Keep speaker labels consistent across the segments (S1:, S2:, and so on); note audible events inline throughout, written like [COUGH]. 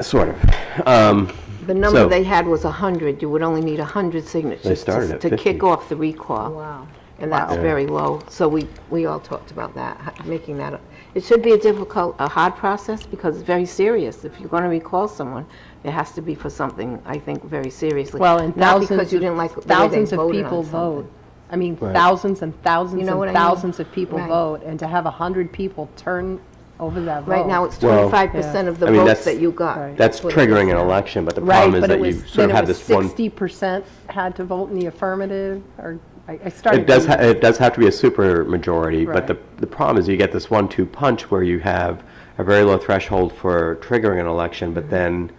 S1: Sort of. Um,
S2: The number
S1: So-
S2: they had was 100. You would only need 100 signatures.
S1: They started
S2: to-
S1: at
S2: To
S1: 50.
S2: kick off the recall.
S3: Wow.
S2: And that's very low. So we, we all talked about that, ho- making that, a- it should be a difficult, a hard process because it's very serious. If you're going to recall someone, it has to be for something, I think, very seriously.
S3: Well, and thousands.
S2: Not because you
S3: of-
S2: didn't like the way they
S3: Thousands of
S2: voted on
S3: people
S2: something.
S3: vote. I mean, thousands and
S2: You
S3: thousands
S2: know what I
S3: and
S2: mean?
S3: thousands of people
S2: Right.
S3: vote, and to have 100 people turn over that vote.
S2: Right now, it's
S1: Well-
S2: 25% of the
S1: I mean,
S2: votes
S1: that's-
S2: that you got.
S1: That's
S2: what it is.
S1: triggering an election, but the
S3: Right,
S1: problem is
S3: but it
S1: that you
S3: was,
S1: sort
S3: then
S1: of
S3: it
S1: have
S3: was
S1: this one.
S3: 60% had to vote in the affirmative, or, I I started.
S1: It does,
S3: reading.
S1: ha- it does have to be a super majority, but
S3: Right.
S1: the, the problem is you get this one-two punch where you have a very low threshold for triggering an election, but then,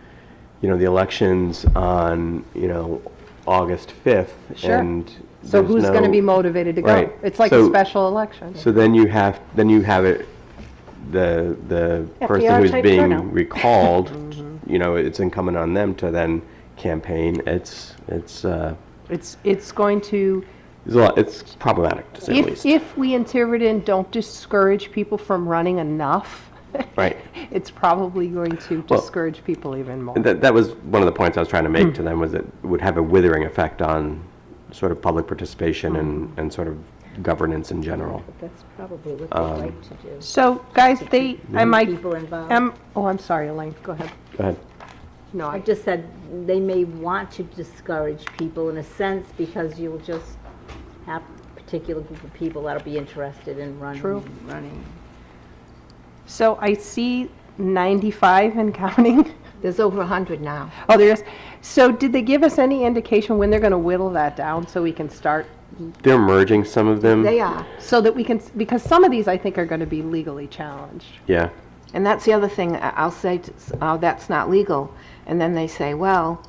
S1: you know, the election's on, you know, August 5th.
S3: Sure.
S1: and
S3: So
S1: there's
S3: who's going to
S1: no-
S3: be motivated to go?
S1: Right.
S3: It's like a
S1: So-
S3: special election.
S1: So then you have, then you have it, the, the person
S4: FDR
S1: who's
S4: type
S1: being
S3: [LAUGHS]
S4: turnout.
S1: recalled,
S3: Mm-hmm.
S1: you know, it's incumbent on them to then campaign. It's, it's, uh,
S3: It's, it's going to,
S1: it's a lot, it's problematic, to say the
S3: if,
S1: least.
S3: if we in Tiverton don't discourage people from running enough,
S1: Right.
S3: [LAUGHS] it's probably going to
S1: Well-
S3: discourage people even more.
S1: And That, that was one of the points I was trying to make to them was that it would have a withering effect on sort of public participation and, and sort of governance in general.
S4: That's probably what
S5: Um,
S4: they like to do.
S3: So, guys, they, I might,
S4: People involved.
S3: um, oh, I'm sorry, Elaine, go ahead.
S1: Go ahead.
S3: No,
S4: I
S3: I,
S4: just said, they may want to discourage people in a sense because you'll just have a particular group of people that'll be interested in running.
S3: True.
S4: Running.
S3: so I see 95 and counting. [LAUGHS]
S2: There's over 100 now.
S3: Oh, there is, so did they give us any indication when they're going to whittle that down so we can start?
S1: They're merging some of them.
S2: They are.
S3: So that we can, because some of these I think are going to be legally challenged.
S1: Yeah.
S2: And that's the other thing, I- I'll say, t- oh, that's not legal. And then they say, well,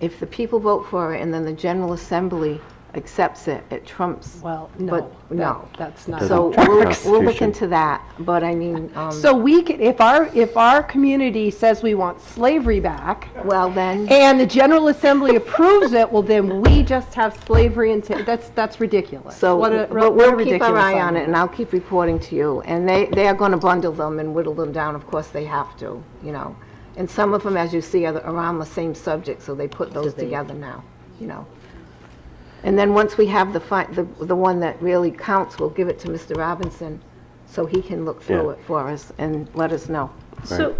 S2: if the people vote for it and then the General Assembly accepts it, it trumps.
S3: Well,
S2: But,
S3: no,
S2: no.
S3: that- that's not.
S2: So
S1: Doesn't
S2: we'll,
S1: trump
S2: we'll look
S1: Constitution.
S2: into that, but I mean, um,
S3: So we could, if our, if our community says we want slavery back,
S2: well then,
S3: and the General Assembly approves it, well, then we just have slavery until, that's, that's ridiculous.
S2: so,
S3: What a-
S2: but
S3: what a
S2: we'll keep our
S3: ridiculous
S2: eye on
S3: idea.
S2: it and I'll keep reporting to you. And they, they are going to bundle them and whittle them down, of course they have to, you know. And some of them, as you see, are around the same subject, so they put those together now, you know. And then once we have the fi, the, the one that really counts, we'll give it to Mr. Robinson so he can look through
S1: Yeah.
S2: it for us and let us know.
S4: So,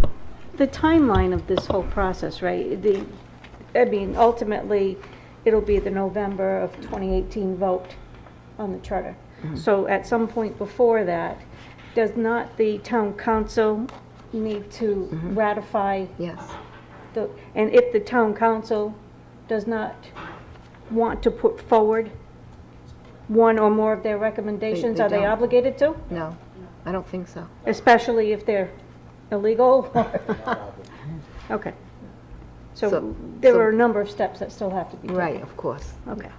S4: the timeline of this whole process, right, the, I mean, ultimately, it'll be the November of 2018 vote on the charter.
S2: Mm-hmm.
S4: So at some point before that, does not the town council need to
S2: Mm-hmm.
S4: ratify
S2: Yes.
S4: the, and if the town council does not want to put forward one or more of their recommendations,
S2: they
S4: are they
S2: don't.
S4: obligated to?
S2: No, I don't think so.
S4: Especially if they're illegal? Okay.
S2: So-
S4: So there
S2: so-
S4: are a number of steps that still have to be taken.
S2: Right, of course.
S4: Okay.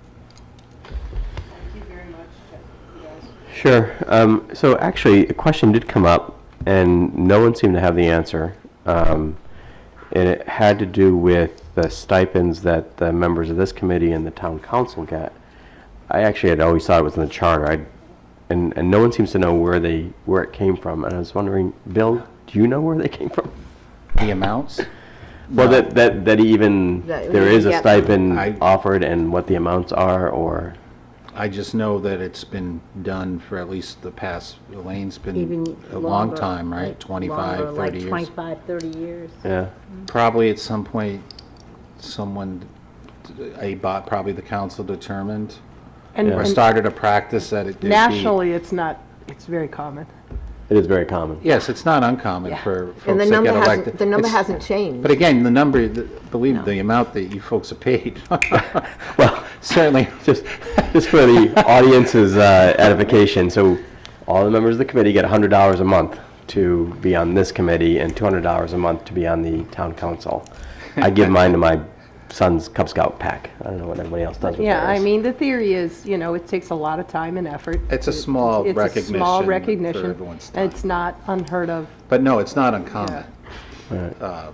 S1: Sure. Um, so actually, a question did come up, and no one seemed to have the answer. Um, and it had to do with the stipends that the members of this committee and the town council get. I actually had always thought it was in the charter. I, and, and no one seems to know where they where it came from. And I was wondering, Bill, do you know where they came from?
S5: The amounts?
S1: Well, that that, that even
S2: That-
S1: there is a
S2: yeah.
S1: stipend
S5: I-
S1: offered, and what the amounts are, or
S5: I just know that it's been done for at least the past, Elaine's been
S4: Even
S5: a long
S4: longer,
S5: time, right? 25, 30
S4: Like
S5: years.
S4: 25, 30 years.
S1: yeah.
S5: Probably at some point, someone, a bot, probably the council determined,
S3: And-
S5: or
S3: And
S5: started a practice that it did be.
S3: nationally, it's not, it's very common.
S1: It is very common.
S5: Yes, it's not uncommon for
S2: And the
S5: folks that
S2: number
S5: get
S2: hasn't,
S5: elected.
S2: the number
S5: It's-
S2: hasn't changed.
S5: But again, the number, the- believe the amount that you folks have paid. [LAUGHS] Well, certainly,
S1: Just, [LAUGHS] just for the audience's uh, edification, so all the members of the committee get $100 a month to be on this committee and $200 a month to be on the town council. I
S3: [LAUGHS]
S1: give mine to my son's Cub Scout pack. I don't know what everybody else does with theirs.
S3: Yeah, I mean, the theory is, you know, it takes a lot of time and effort.
S5: it's a small
S3: It's a
S5: recognition
S3: small recognition.
S5: for everyone's time.
S3: and It's not unheard of.
S5: But no, it's not uncommon.
S1: Right.
S5: uh,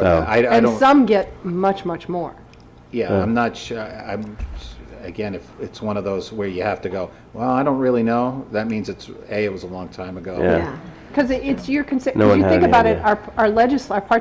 S1: So-
S5: that, I, I
S3: And
S5: don't,
S3: some get much, much more.
S5: yeah, I'm not sure, I'm, again, if it's one of those where you have to go, well, I don't really know, that means it's, A, it was a long time ago.
S1: Yeah.
S2: Yeah.
S3: Because it's your, consi-
S1: No
S3: if
S1: one
S3: you
S1: had
S3: think
S1: any
S3: about it,
S1: idea.
S3: our, our legisl, our part